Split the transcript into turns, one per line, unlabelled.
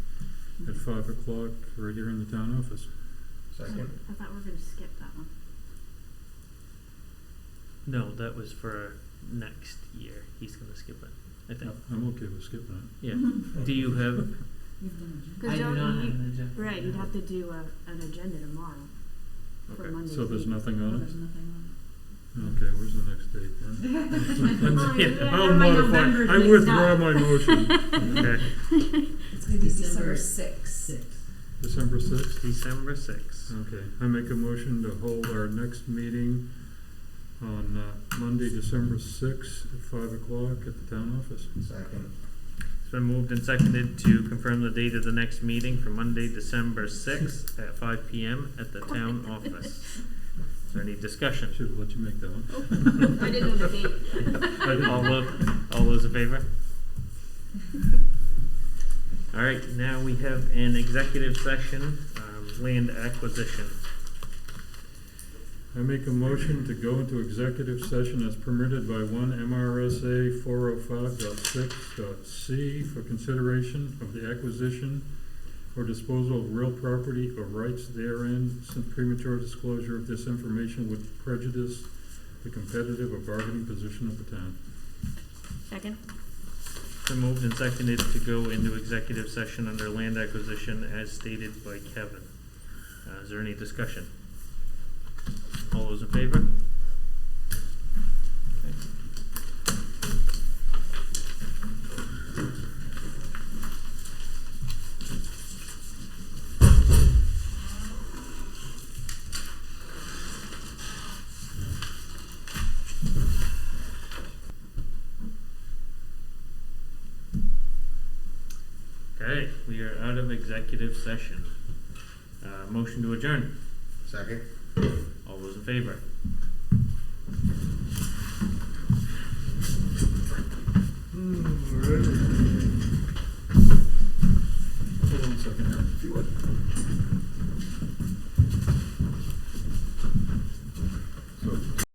five o'clock right here in the town office.
Second.
I thought we were gonna skip that one.
No, that was for next year. He's gonna skip it, I think.
I'm okay with skipping it.
Yeah. Do you have?
You've done
Cause
I do
don't
not
you-
have an agenda.
Right, you'd have to do a, an agenda tomorrow for
Okay,
Monday's
so there's nothing
meeting.
a job.
on
There's nothing
it? Okay, where's the next date then?
Oh,
Yeah.
yeah,
I'll
no, my
modify,
November
I
date's
withdraw
not-
my motion.
Okay.
on. It's gonna be December
December
sixth.
December sixth?
December sixth.
Okay, I make a motion to hold our next meeting on uh, Monday, December sixth, at five o'clock at the town office.
Second.
It's been moved and seconded to confirm the date of the next meeting for Monday, December sixth at five P M at the town office. Is there any discussion?
Should have let you make that one.
I didn't know the date.
All tho- all those in favor? All right, now we have an executive session, um, land acquisition.
I make a motion to go into executive session as permitted by one MRSA four oh five dot six dot C for consideration of the acquisition or disposal of real property or rights therein, since premature disclosure of this information would prejudice the competitive or bargaining position of the town.
Second?
It's been moved and seconded to go into executive session under land acquisition as stated by Kevin. Uh, is there any discussion? All those in favor? Okay. Okay, we are out of executive session. Uh, motion to adjourn.
Second.
All those in favor?